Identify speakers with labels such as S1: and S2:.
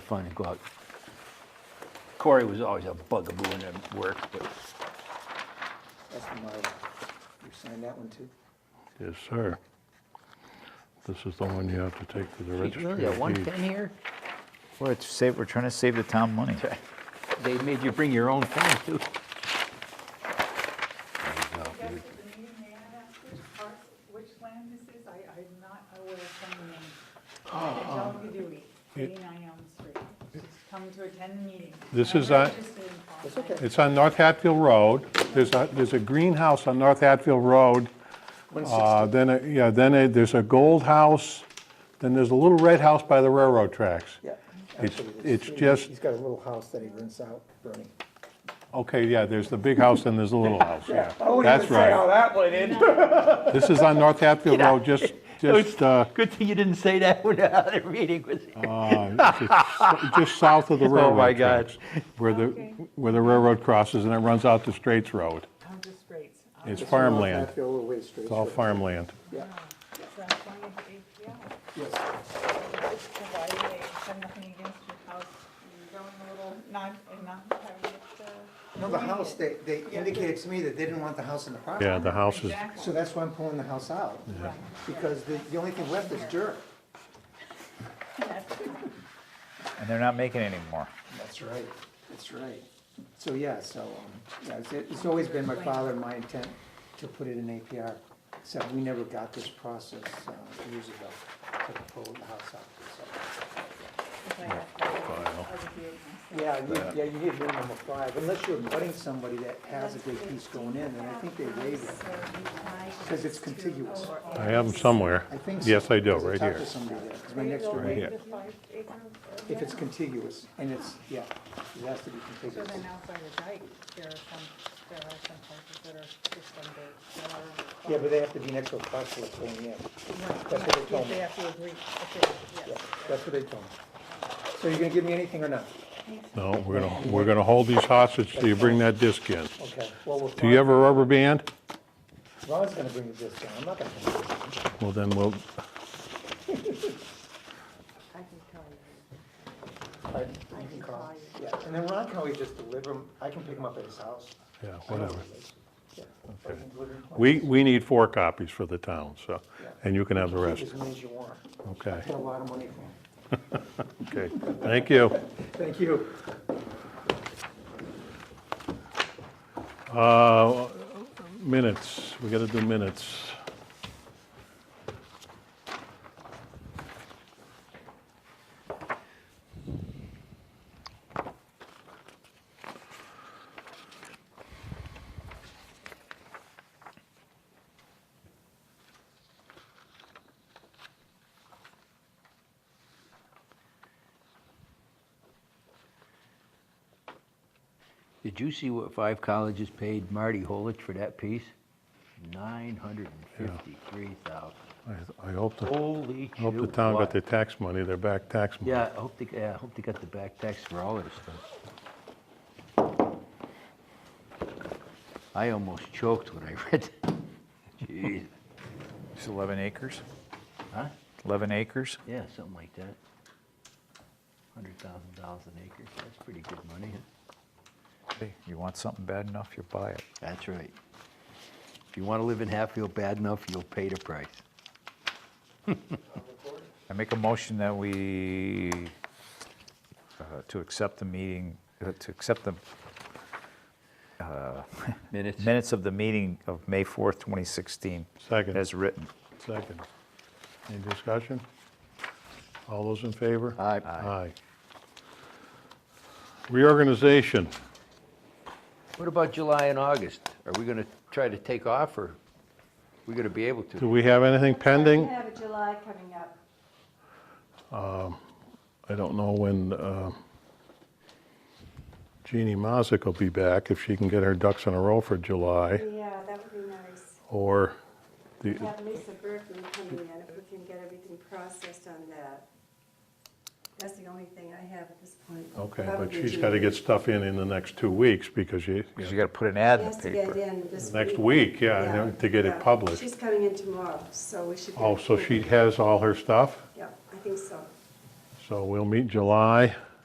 S1: fun to go out. Corey was always a bugaboo in at work, but
S2: That's my, you signed that one too?
S3: Yes, sir. This is the one you have to take to the
S1: geez, really,
S3: registry
S1: a
S3: of deeds.
S1: 110 here?
S4: We're, at save, we're trying to save the town money.
S1: They made you bring your own pen, too.
S5: Yes, at the meeting, may I ask which parts, which land this is? I, I'm not aware of some of the names.
S3: Ah,
S5: John Gadui, eighty-nine Elm Street. She's come to attend the meeting.
S3: This
S5: I'm
S3: is on-
S5: interested in
S2: That's
S5: farmland.
S2: okay.
S3: It's on North Hatfield Road. There's a, there's a greenhouse on North Hatfield Road. Uh, Then, a- yeah, then a- there's a gold house, then there's a little red house by the railroad tracks.
S2: Yeah.
S3: It's-
S2: actually,
S3: it's
S2: he-
S3: just-
S2: He's got a little house that he rents out, Bernie.
S3: Okay, yeah, there's the big house and there's the little house, yeah. That's
S2: how
S3: right.
S2: that went in.
S3: This is on North Hatfield Road, just, just, uh,
S1: Good thing you didn't say that when the other meeting was here.
S3: uh, just- just south of the railroad
S1: my God.
S3: tracks. Where the,
S5: Okay.
S3: where the railroad crosses and it runs out to Straits Road.
S5: I'm just great. Um,
S3: It's farmland.
S2: Hatfield, a little ways straight.
S3: It's all
S2: sure.
S3: farmland.
S2: Yeah,
S5: so I'm going to be- yeah,
S2: yes.
S5: it's provided they have nothing against your house. You're going a little, not, and not having it, uh.
S2: No, the house, they, they indicated to me that they didn't want the house in the property.
S3: Yeah, the house is,
S5: Exactly.
S2: So that's why I'm pulling the house out,
S5: Right.
S2: because the, the only thing left is dirt.
S4: And they're not making any more.
S2: That's right, that's right. So, yeah, so, um, yeah, it's, it's always been my father and my intent to put it in APR, except we never got this process, uh, years ago, to pull the house out, so. Yeah, you, yeah, you need minimum of five, unless you're butting somebody that has a big piece going in, and I think they waived it, because it's contiguous.
S3: I have them somewhere.
S2: I think so.
S3: Yes, I do,
S2: 'cause
S3: right
S2: I talked
S3: here.
S2: to somebody there, 'cause my next door,
S3: Right
S2: neighbor-
S3: here.
S5: The five acre, uh,
S2: if it's contiguous, and it's, yeah, it has to be
S5: So
S2: contiguous.
S5: then outside the dike, there are some, there are some places that are just uh, some big.
S2: Yeah, but they have to be next to a parcel that's going in. that's what they told me.
S5: They have to agree, okay,
S2: Yeah,
S5: yes.
S2: that's what they told me. So you're gonna give me anything or not?
S3: No, we're gonna, we're gonna hold these hostage till you bring that disc in.
S2: Okay, well, we'll.
S3: Do you have a rubber band?
S2: Ron's gonna bring the disc down, I'm not gonna. bring it down.
S3: Well, then we'll,
S5: I can tell you.
S2: Pardon? You can
S3: Uh,
S2: call. Yeah, and then Ron can always just deliver them, I can pick them up at his house.
S3: yeah, whatever.
S2: Yeah, or I can deliver 'em to my
S3: We,
S2: house.
S3: we need four copies for the town, so,
S2: Yeah.
S3: and you can have the
S2: Keep
S3: rest.
S2: As many as you want.
S3: Okay,
S2: Get a lot of money for 'em.
S3: okay. Thank you.
S2: Thank you.
S3: Uh, Minutes, we gotta do minutes.
S1: Did you see what five colleges paid Marty Holich for that piece? 953,000.
S3: I- I hope the,
S1: Holy
S3: I hope the
S1: shoot,
S3: town
S1: what?
S3: got their tax money, their back tax money.
S1: Yeah, I hope they, yeah, I hope they got the back tax for all their stuff. I almost choked when I read that. Jeez,
S4: It's 11 acres?
S1: huh?
S4: 11 acres?
S1: Yeah, something like that. Hundred thousand dollars an acre, that's pretty good money. huh?
S4: Hey, You want something bad enough, you buy it.
S1: That's right. If you wanna live in Hatfield bad enough, you'll pay the price.
S4: I make a motion that we, uh, to accept the meeting, uh, to accept the
S1: Minutes?
S4: minutes of the meeting of May 4th, 2016.
S3: Second.
S4: As written.
S3: Second. Any discussion? All those in favor?
S1: Aye.
S3: Aye. Reorganization.
S1: What about July and August? Are we gonna try to take off, or we gonna be able
S3: Do
S1: to?
S3: we have anything pending?
S6: We have a July coming up.
S3: I don't know when uh, Jeannie Mazick will be back, if she can get her ducks in a row for July,
S6: Yeah, that would be nice.
S3: or the,
S6: We have Lisa Berkman coming in, if we can get everything processed on that. That's the only thing I have at this point.
S3: okay, but
S6: Probably
S3: she's got to
S6: June.
S3: get stuff in in the next two weeks, because she,
S4: Because you got to put an ad
S6: She
S4: in
S6: has
S4: the
S6: to get
S4: paper.
S6: in this week.
S3: Next week, yeah, I know, to get it
S6: yeah.
S3: published.
S6: She's coming in tomorrow, so we should. get
S3: oh,
S6: it
S3: so she
S6: moving.
S3: has all her stuff,
S6: Yeah, I think so.
S3: so we'll meet July.